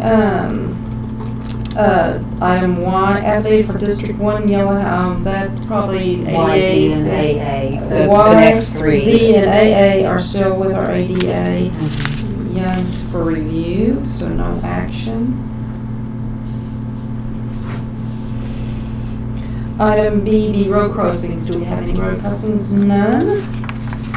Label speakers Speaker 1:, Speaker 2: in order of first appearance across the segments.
Speaker 1: Um, uh, item one, athlete for District One, yellow, um, that's probably
Speaker 2: Y, Z, and
Speaker 1: ADA.
Speaker 2: AA, the, the
Speaker 1: Y,
Speaker 2: next three.
Speaker 1: Z and AA are still with our ADA. Young for review, so no action. Item B, the road crossings. Do we have any road crossings? None.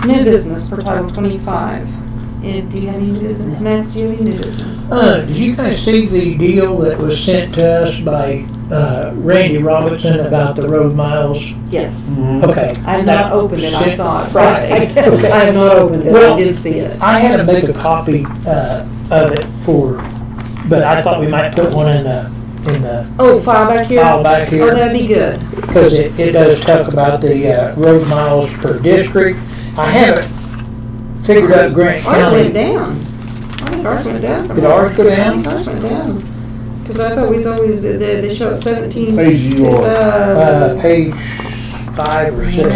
Speaker 1: New business per Title 25. And do you have any new business, Max? Do you have any new business?
Speaker 3: Uh, did you guys see the deal that was sent to us by, uh, Randy Robinson about the road miles?
Speaker 4: Mm-hmm.
Speaker 1: Yes.
Speaker 3: Okay.
Speaker 1: I have not opened it. I
Speaker 3: Sent
Speaker 1: saw it.
Speaker 3: Friday. Okay.
Speaker 1: I have not opened it. I
Speaker 3: Well-
Speaker 1: did see it.
Speaker 3: I had to make a copy, uh, of it for, but I thought we might put one in the, in the
Speaker 1: Oh, file back here?
Speaker 3: file back
Speaker 1: Oh,
Speaker 3: here.
Speaker 1: that'd be good.
Speaker 3: Cause it, it does talk about the, uh, road miles per district. I haven't figured out Grant
Speaker 1: Ours went
Speaker 3: County.
Speaker 1: down. I think ours went down. from
Speaker 3: Did ours go
Speaker 1: I
Speaker 3: down?
Speaker 1: think ours went down. Because I thought we was always, they, they show it seventeen.
Speaker 4: Page you are.
Speaker 3: Uh,
Speaker 1: Uh.
Speaker 3: page five or six.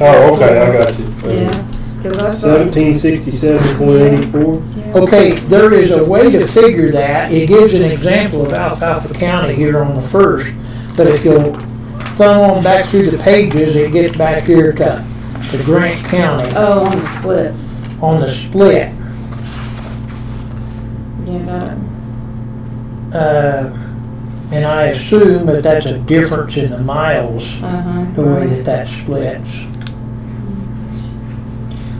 Speaker 4: Oh, okay, I got you.
Speaker 1: Yeah, because I saw,
Speaker 4: Seventeen sixty-seven point eighty-four?
Speaker 3: Okay, there is a way to figure that. It gives an example of Alfalfa County here on the first, but if you'll thumb on back through the pages, it gets back here to, to Grant County
Speaker 1: oh, on the splits.
Speaker 3: on the split.
Speaker 1: Yeah, got it.
Speaker 3: Uh, and I assume that that's a difference in the miles,
Speaker 1: Uh-huh.
Speaker 3: the way that that splits.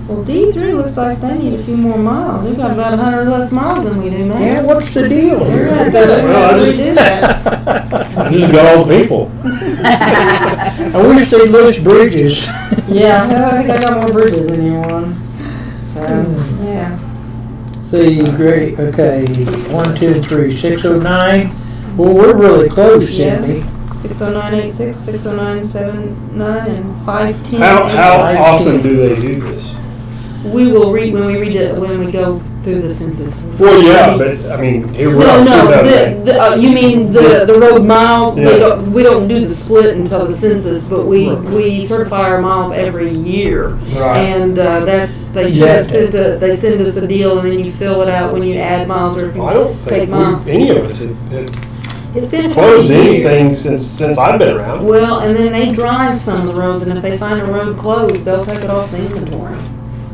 Speaker 1: Well, D three looks like they need a few more miles. They've got about a hundred less miles than we do, man.
Speaker 3: Yeah, what's the deal
Speaker 1: They're
Speaker 3: here?
Speaker 1: gonna have to look
Speaker 4: Well, I
Speaker 1: at
Speaker 4: just-
Speaker 1: redo that.
Speaker 4: I just got all the people.
Speaker 3: I wish they'd list bridges.
Speaker 1: Yeah, I think I got more bridges than anyone. So, yeah.
Speaker 3: See, great, okay, one, two, three, six oh nine. Well, we're really close, Cindy.
Speaker 1: Six oh nine eight six, six oh nine seven nine, and five ten.
Speaker 4: How, how often do they do this?
Speaker 1: We will read, when we read it, when we go through the census.
Speaker 4: Well, yeah, but, I mean, here we
Speaker 1: No,
Speaker 4: are, two
Speaker 1: no,
Speaker 4: thousand.
Speaker 1: the, the, uh, you mean the, the road miles, we
Speaker 4: Yeah.
Speaker 1: don't, we don't do the split until the census, but we,
Speaker 4: Right.
Speaker 1: we certify our miles every year.
Speaker 3: Right.
Speaker 1: And, uh, that's, they
Speaker 3: Yeah.
Speaker 1: just send a, they send us a deal and then you fill it out when you add miles or if
Speaker 4: I
Speaker 1: you,
Speaker 4: don't
Speaker 1: Take
Speaker 4: think
Speaker 1: mine.
Speaker 4: we, any of us have- have
Speaker 1: it's been a couple of
Speaker 4: closed
Speaker 1: years.
Speaker 4: anything since, since I've been around.
Speaker 1: Well, and then they drive some of the roads and if they find a road closed, they'll take it off the inventory.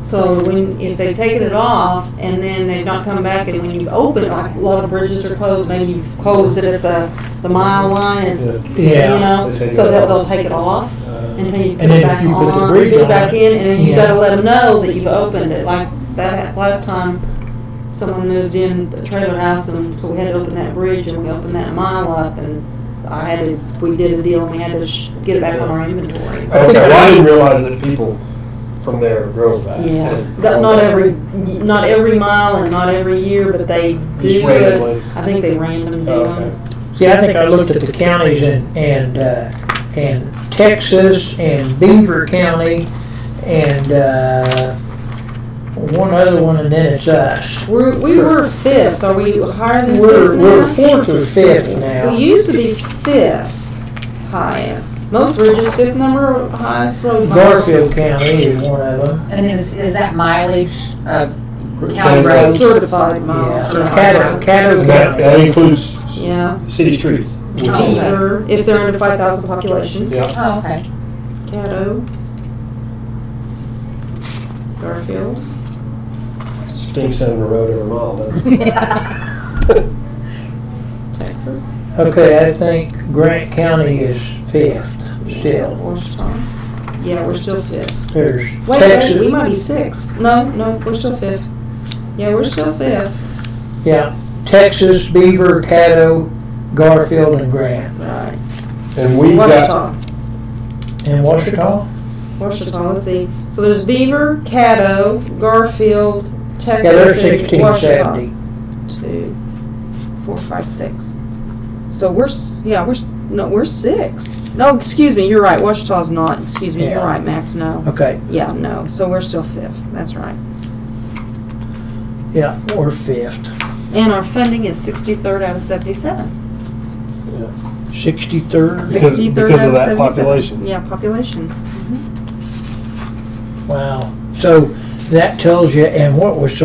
Speaker 1: So when, if they've taken it off and then they've not come back and when you've opened, like a lot of bridges are closed, maybe you've closed it at the, the mile line, it's you
Speaker 3: Yeah,
Speaker 1: know,
Speaker 4: They take
Speaker 1: so
Speaker 4: it
Speaker 1: that
Speaker 4: off.
Speaker 1: they'll take it off
Speaker 4: Uh,
Speaker 1: until you put
Speaker 3: And
Speaker 1: it
Speaker 3: then
Speaker 1: back
Speaker 3: if you put the
Speaker 1: on,
Speaker 3: bridge
Speaker 1: put it
Speaker 3: on
Speaker 1: back in, and then you
Speaker 3: yeah.
Speaker 1: gotta let them know that you've opened it, like that last time someone moved in the trailer house, and so we had to open that bridge, and we opened that mile up, and I had to, we did a deal, and we had to sh- get it back on our inventory.
Speaker 4: Okay, well, I didn't realize that people from there drove that.
Speaker 1: Yeah, that, not every, not every mile and not every year, but they do
Speaker 4: Just
Speaker 1: it,
Speaker 4: randomly.
Speaker 1: I think they random do
Speaker 4: Oh,
Speaker 1: them.
Speaker 4: okay.
Speaker 3: see, I think I looked at the counties and, and, uh, and Texas and Beaver County and, uh, one other one and then it's us.
Speaker 1: We're, we were fifth, are we higher than 5th
Speaker 3: We're, we're fourth or fifth
Speaker 1: We
Speaker 3: now,
Speaker 1: used to be fifth highest. Most were just fifth number of highest road miles.
Speaker 3: Garfield County is one of them.
Speaker 2: And is, is that mileage of county
Speaker 4: County
Speaker 2: roads?
Speaker 1: Certified miles.
Speaker 3: Yeah,
Speaker 1: certified
Speaker 3: Caddo,
Speaker 1: miles.
Speaker 3: Caddo
Speaker 4: And that,
Speaker 3: County.
Speaker 4: that includes
Speaker 1: Yeah.
Speaker 4: city streets.
Speaker 2: Oh.
Speaker 1: Beaver, if they're under five thousand population.
Speaker 4: Yeah.
Speaker 2: Oh, okay.
Speaker 1: Caddo. Garfield.
Speaker 4: Stinks having a road every mile, doesn't it?
Speaker 1: Texas.
Speaker 3: Okay, I think Grant County is fifth still.
Speaker 1: Washington. Yeah, we're still fifth.
Speaker 3: There's
Speaker 1: Wait, wait,
Speaker 3: Texas.
Speaker 1: we might be sixth. No, no, we're still fifth. Yeah, we're still fifth.
Speaker 3: Yeah, Texas, Beaver, Caddo, Garfield, and Grant.
Speaker 1: Right.
Speaker 4: And we've got,
Speaker 1: Washington.
Speaker 3: And Washita?
Speaker 1: Washita, let's see. So there's Beaver, Caddo, Garfield, Texas,
Speaker 3: Yeah, they're
Speaker 1: and
Speaker 3: sixteen
Speaker 1: Washita.
Speaker 3: seventy.
Speaker 1: Two, four, five, six. So we're s- yeah we're s- no we're six. No, excuse me, you're right. Washita's not. Excuse me, you're
Speaker 3: Yeah.
Speaker 1: right, Max. No.
Speaker 3: Okay,
Speaker 1: Yeah, no. So we're still fifth. That's right.
Speaker 3: yeah, we're fifth.
Speaker 1: And our funding is sixty-third out of seventy-seven.
Speaker 3: Sixty-third?
Speaker 4: Because-
Speaker 1: Sixty-third
Speaker 4: because
Speaker 1: out
Speaker 4: of that
Speaker 1: 77.
Speaker 4: population.
Speaker 1: Yeah, population.
Speaker 3: Wow. So that tells you, and what was